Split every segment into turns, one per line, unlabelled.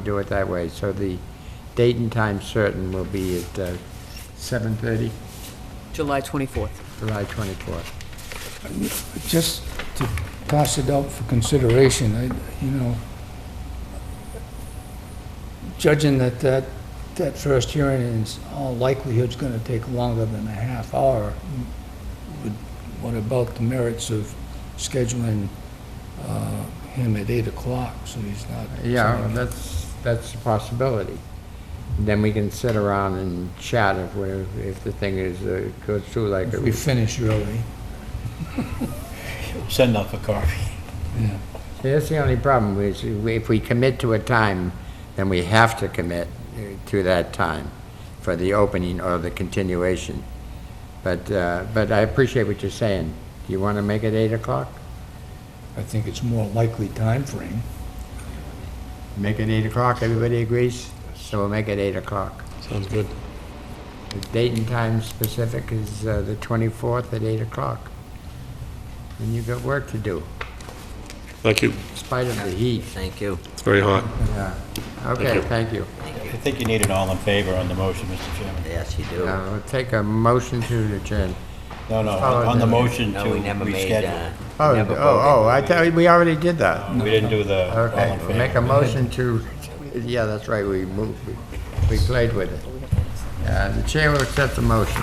do it that way. So the date and time certain will be at uh, 7:30,
July 24th.
July 24th.
Just to pass it out for consideration, I, you know, judging that that, that first hearing is all likelihood's gonna take longer than a half hour, would- what about the merits of scheduling, uh, him at eight o'clock, so he's not.
Yeah, that's, that's a possibility. Then we can sit around and chat if we're, if the thing is, uh, goes through like,
If
it
we
was-
finish early,
Send off a coffee.
yeah.
See, that's the only problem, is if we commit to a time, then we have to commit uh, to that time for the opening or the continuation. But, uh, but I appreciate what you're saying. Do you want to make it 8 o'clock?
I think it's more likely time frame.
Make it 8 o'clock, everybody agrees? So we'll make it 8 o'clock.
Sounds good.
The date and time specific is uh, the 24th at 8 o'clock. And you've got work to do,
Thank you.
in spite of the heat.
Thank you.
It's very hot.
Yeah. Okay,
you.
thank you.
I think you need it all in favor on the motion, Mr. Chairman.
Yes, you do.
Uh, We'll take a motion to adjourn.
No, no,
Oh,
on the
no.
motion to
No, we never made, uh,
reschedule.
Oh,
never
oh, oh, I thought, we already did that.
uh,
We didn't do the all
Okay,
in
we'll make a
favor.
motion to, yeah, that's right, we moved, we- we played with it. Uh, The chair will accept the motion.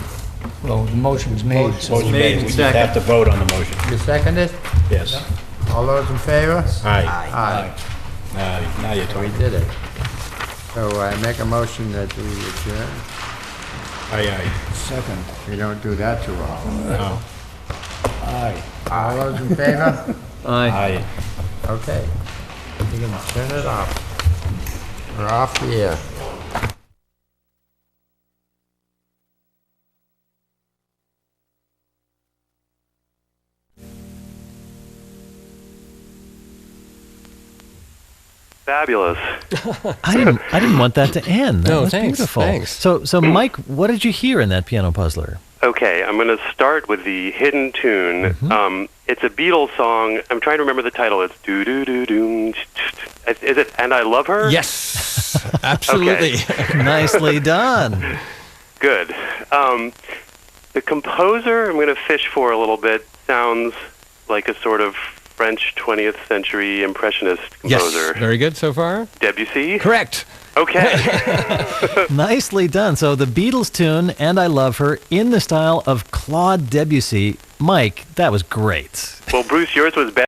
Well, the motion's made, so.
Motion made, we just have to vote on the motion.
You second it?
Yes.
All those in favor?
Aye.
Aye.
Now now you're
We
talking.
did it. So I make a motion that we adjourn.
Aye,
Second,
We don't do that too often.
aye. No.
aye.
All those in favor?
Aye.
Okay. You can turn it off. We're off the air.
Fabulous.
I didn't. I didn't want that to end. That
No,
was
Oh, thanks,
beautiful.
thanks.
So, so Mike, what did you hear in that piano puzzler?
Okay, I'm going to start with the hidden tune.
Mm-hmm.
Um, it's a Beatles song. I'm trying to remember the title. It's do do do do. Is is it "And I Love Her"?
Yes, absolutely.
Nicely done.
Good. Um, the composer I'm going to fish for a little bit sounds like a sort of French 20th century impressionist
Yes,
composer,
very good so far.
Debussy.
Correct.
Okay.
Nicely done. So the Beatles tune "And I Love Her" in the style of Claude Debussy. Mike, that was great.
well, Bruce, yours was better.